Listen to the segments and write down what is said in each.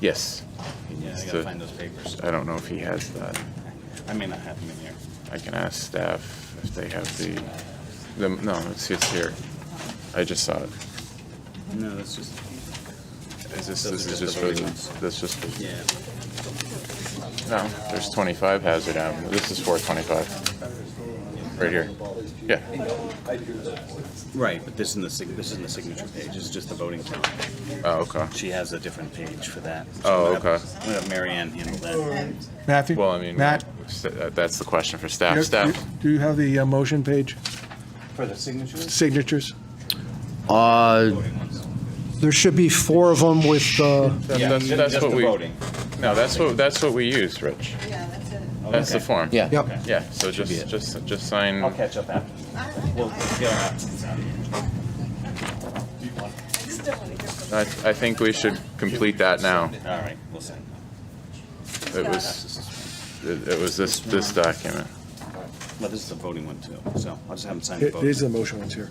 Yes. He Yeah, needs I gotta to- find those papers. I don't know if he has that. I may not have them in here. I can ask staff if they have the, the, no, it's, it's here. I just saw it. No, that's just, Is this, Those this are is just just the for, voting the- ones. that's just, for- yeah. no, there's twenty-five Hazard Avenue. This is for twenty-five. Right here. Yeah. Right, but this isn't the, sig- this isn't the signature page, this is just the voting count. Oh, okay. She has a different page for that. So Oh, I'm gonna have- okay. I'm gonna have Mary Ann handle that. Matthew? Well, I mean, Matt? st- that- that's the question for staff. you- Staff, Do you have the uh, motion page, For the signatures? signatures? Uh, There should be four of them with, uh, That- that's- that's Just what the we- voting. no, that's what, that's what we use, Rich. Yeah, that's it. That's the Okay. form. yeah. Yep. Yeah, so just, just, just sign. I'll catch up after. I, I, We'll I get our absence out. just don't want to hear from I, I think we should complete that now. All right, we'll see. It was, it it was this, this document. Well, this is the voting one too, so I'll just have them sign the It it is the vote. motion ones here.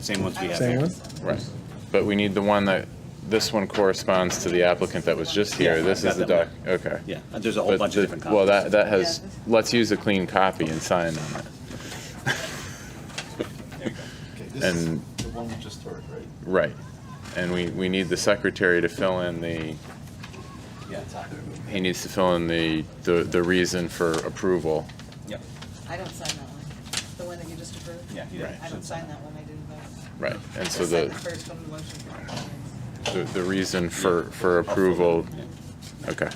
Same ones we have Same here. one? Right. But we need the one that, this one corresponds to the applicant that was just here. Yeah, This I've is the got doc, that okay. Yeah, uh, there's a whole But bunch the- of different copies. Well, that, that has, Yeah. let's use a clean copy and sign on it. And, The one we just heard, right? right. And we, we need the secretary to fill in the, Yeah, he needs to fill in the, the, the reason for approval. Yep, that. I don't sign that one. The one that you just approved? yeah. he did. I don't sign that one, I didn't vote. Right. And so I signed the, the first one, the motion. for- the, the reason for, for approval, Yeah. okay.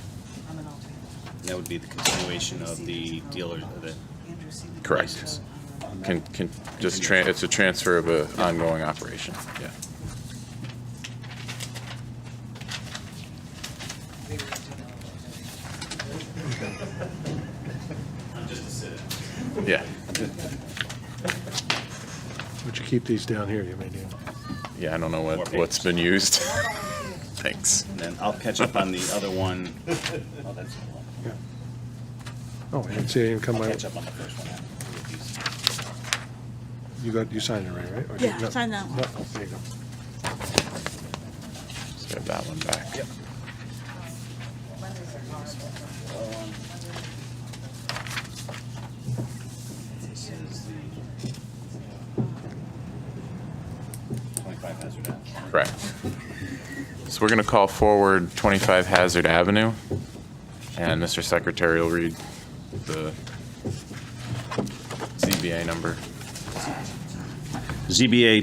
I'm an alternate. That would be the continuation of the dealer, the, Andrew C. McNeil. Correct. Can, can, just, tran- it's a transfer of an ongoing operation, yeah. We were doing all of Yeah, Would you keep these down here, you may need. yeah, I don't know More what, pages. what's been used. Thanks. and then I'll catch up on the other one. Oh, that's the one. Oh, I didn't see it even come I'll out. catch up on the first one. You got, you signed it already, right? Or did- Yeah, no. signed that one. No, oh, There you go. Let's get that one back. that. Mondays are hard. This is the Twenty-five Hazard Ave. Correct. So we're going to call forward 25 Hazard Avenue, and Mr. Secretary will read the CBA number. ZBA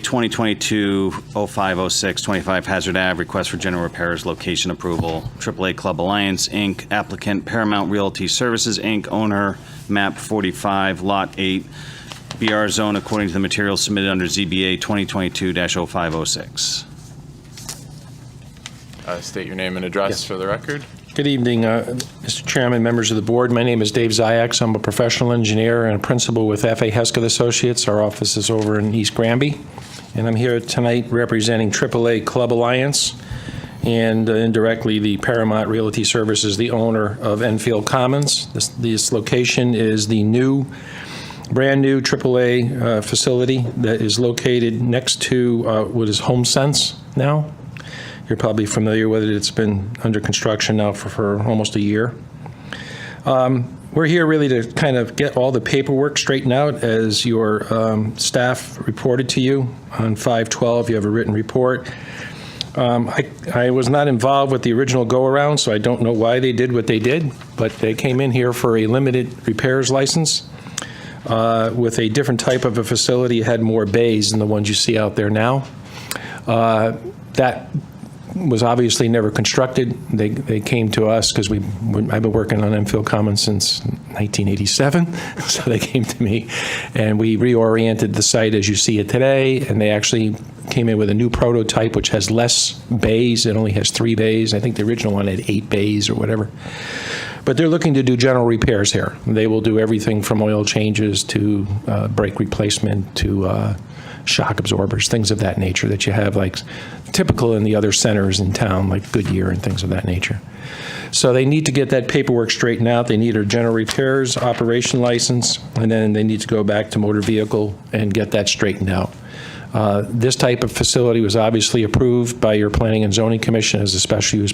2022-0506, 25 Hazard Ave, request for general repairs, location approval, AAA Club Alliance, Inc., applicant Paramount Realty Services, Inc., owner, map 45, lot 8, BR zone according to the materials submitted under ZBA 2022-0506. Uh, State your name and address Yes. for the record. Good evening, uh, Mr. Chairman, members of the board. My name is Dave Ziyax. I'm a professional engineer and a principal with F.A. Hesketh Associates. Our office is over in East Granby, and I'm here tonight representing AAA Club Alliance and uh, indirectly the Paramount Realty Services, the owner of Enfield Commons. This- This location is the new brand-new AAA uh, facility that is located next to uh, what is HomeSense now. You're probably familiar with it. It's been under construction now for, for almost a year. Um, We're here really to kind of get all the paperwork straightened out. As your um, staff reported to you on 512, you have a written report. Um, I I was not involved with the original go-around, so I don't know why they did what they did, but they came in here for a limited repairs license uh, with a different type of a facility, it had more bays than the ones you see out there now. Uh, That was obviously never constructed. They, they came to us because we, I've been working on Enfield Commons since 1987, so they came to me, and we reoriented the site as you see it today, and they actually came in with a new prototype which has less bays, it only has three bays. I think the original one had eight bays or whatever. But they're looking to do general repairs here. They will do everything from oil changes to uh, brake replacement to uh, shock absorbers, things of that nature that you have like typical in the other centers in town, like Goodyear and things of that nature. So they need to get that paperwork straightened out. They need a general repairs operation license, and then they need to go back to motor vehicle and get that straightened out. Uh, This type of facility was obviously approved by your Planning and Zoning Commission as a special use